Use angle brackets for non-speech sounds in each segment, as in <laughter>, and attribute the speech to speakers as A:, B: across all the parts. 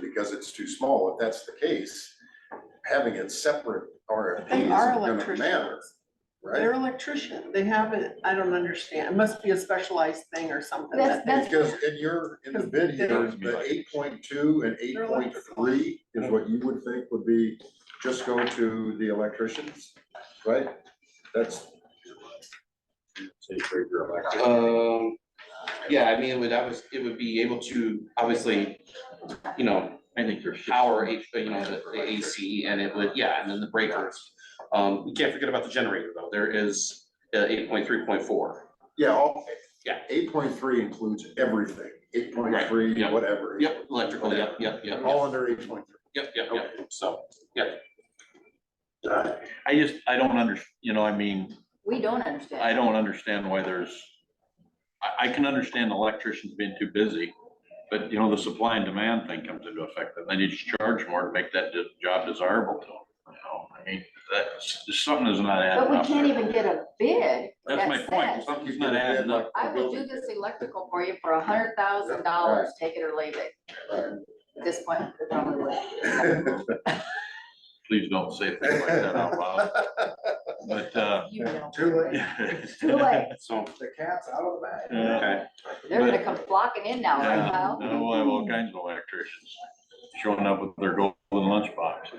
A: because it's too small. If that's the case, having it separate RFP
B: They are
A: isn't gonna matter,
B: electricians. They're
A: right?
B: electrician. They have it, I don't understand. It must be a specialized thing or something
C: That's-
B: that they.
C: that's-
A: Because in your, in the bid here, the eight point two and eight
B: They're
A: point three is what you would think would be, just go to the electricians, right? That's.
D: Um, yeah, I mean, it would, I was, it would be able to, obviously, you know,
E: I think you're.
D: power, H- you know, the, the AC and it would, yeah, and then the breakers. Um, you can't forget about the generator though. There is, uh, eight point three point four.
A: Yeah, all.
D: Yeah.
A: Eight point three includes everything, eight point three,
D: Right, yeah.
A: whatever.
D: Yep, electrical, yep, yep, yep,
A: All under eight point three.
D: yep, yep, yep. So,
E: I just, I don't under, you know, I mean,
C: We don't understand.
E: I don't understand why there's, I, I can understand electricians being too busy, but you know, the supply and demand thing comes into effect, and they need to charge more to make that de- job desirable to them, you know, I mean, that's, there's something is not adding
C: But
E: up.
C: we can't
E: there.
C: even get a bid.
E: That's
C: that
E: my point,
C: says,
E: something's not adding up.
C: I will do this electrical for you for a hundred thousand dollars, take it or leave it. At this point, it probably would.
F: <laughs>
A: <laughs>
E: please don't say things like that out loud.
C: <laughs>
E: But, uh, <laughs>
C: You know,
A: Too late,
C: too late.
D: so,
A: the cat's out of the bag.
E: yeah,
D: okay.
C: They're gonna come flocking in now, right,
E: yeah,
C: Kyle?
E: no, we'll have all kinds of electricians showing up with their golden lunchbox.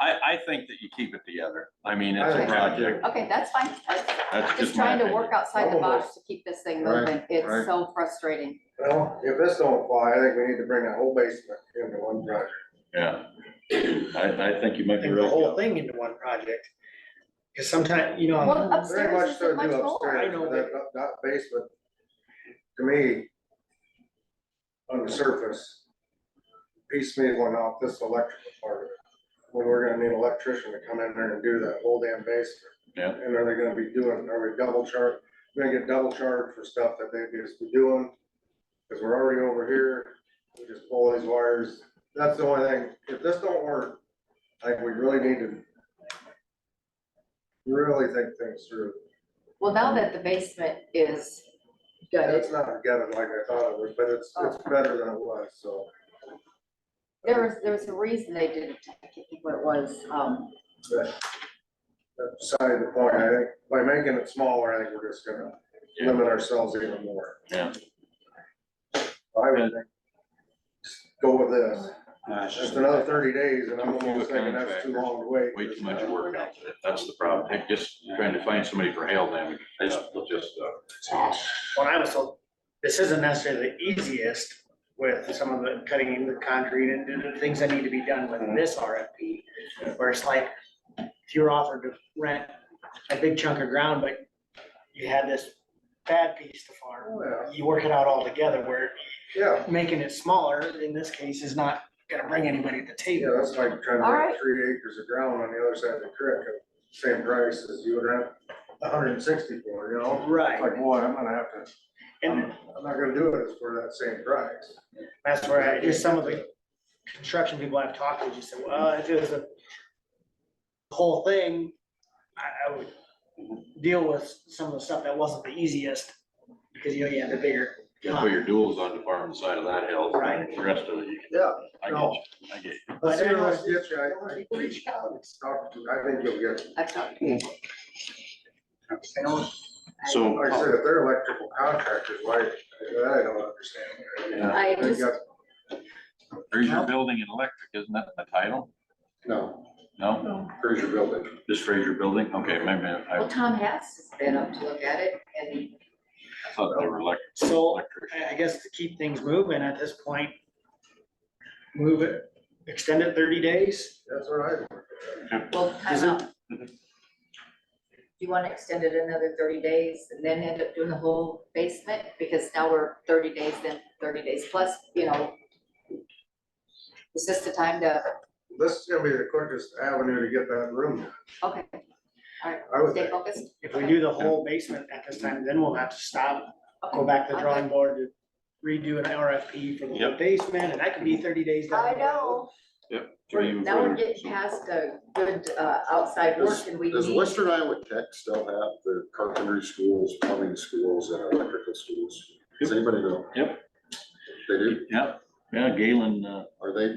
E: I, I think that you keep it together. I mean, it's a
C: Okay.
E: project.
C: Okay, that's fine. That's-
E: That's
C: Just
E: just my
C: trying to
E: opinion.
C: work outside the box
G: Almost.
C: to keep this thing
A: Right,
C: moving. It's
A: right.
C: so frustrating.
G: Well, if this don't apply, I think we need to bring that whole basement into one project.
E: Yeah. I, I think you might be
F: and the
E: right.
F: whole thing into one project. Cause sometimes, you know,
C: Well,
G: Very
C: upstairs
G: much
C: isn't
G: so
C: much
G: do
C: more.
F: I
G: upstairs,
F: know,
G: but that, that basement, to me, on the surface, piecemealing off this electrical part, of it, when we're gonna need an electrician to come in there and do that whole damn basement.
E: Yeah.
G: And are they gonna be doing, are we double charged, gonna get double charged for stuff that they just be doing? Cause we're already over here, we just pull these wires, that's the only thing, if this don't work, like, we really need to really think things through.
C: Well, now that the basement is
G: It's
C: gutted,
G: not gutted like I thought it was, but it's, it's
C: Oh.
G: better than it was, so.
C: there was, there was a reason they did it. I can't think what it was. Um,
G: That's beside the point, I think, by making it smaller, I think we're just gonna limit ourselves even more.
E: Yeah.
G: I would think, go with this,
D: Gosh.
G: just another thirty days, and I'm
E: Too few
G: almost thinking that's too long to wait.
E: Way too much work out there. That's the problem. They're Just trying to find somebody for hail damage. That's just, uh,
F: when I was told, this isn't necessarily the easiest with some of the cutting the concrete and doing the things that need to be done with this RFP. Where it's like, if you're offered to rent a big chunk of ground, but you had this bad piece to farm,
G: Yeah,
F: you work it out all together where
G: Yeah,
F: making it smaller in this case is not gonna bring anybody to the
G: yeah,
F: table.
G: that's like trying
C: All
G: to
C: right.
G: get three acres of ground on the other side of the creek, at the same price as you would rent a hundred and sixty for, you know? It's
F: Right,
G: like, boy, I'm gonna have to,
F: and
G: I'm I'm not gonna do it for that same price.
F: That's where I, just some of the construction people I've talked to just said, well, if it was a whole thing, I, I would deal with some of the stuff that wasn't the easiest, because you know, you have the bigger.
E: you put your duels on the far side of that hill.
F: Right.
E: The rest of it, you
G: Yeah.
E: I get
G: No.
E: you. I get you.
G: Let's
F: But
G: see
F: anyway,
G: what else gets you. I think reach out and talk to- I think you'll get,
C: I thought-
E: So,
G: like I said, if they're electrical contractors, why, I don't understand.
C: I
G: They
C: just,
G: got-
E: Fraser Building and Electric, isn't that the title?
A: No,
E: No?
A: here's your building.
E: Just Fraser Building? Okay, maybe I
C: well, Tom Hess has been up to look at it and
E: thought they were electric.
F: so
E: electricians.
F: I, I guess to keep things moving at this point, move it, extend it thirty days.
G: That's all right.
C: Well, time out. Do you want to extend it another thirty days and then end up doing the whole basement? Because now we're thirty days, then thirty days plus, you know. Is this the time to,
G: This is gonna be the quickest avenue to get that room.
C: okay,
G: I would
C: stay
G: think.
C: focused?
F: If we do the whole basement at this time, then we'll have to stop go
C: Okay.
F: back to the
C: Okay.
F: drawing board to redo an RFP for the whole
E: Yep.
F: basement, and that could be thirty days down the
C: I
F: road.
C: know,
E: Three even
C: now we're
E: further.
C: getting past a good uh, outside work and we
A: Does
C: need,
A: Western Iowa Tech still have the carpentry schools, plumbing schools, and electrical schools? Does anybody know?
E: Yep.
A: They do?
E: Yep. Yeah, Galen, uh,
A: Are they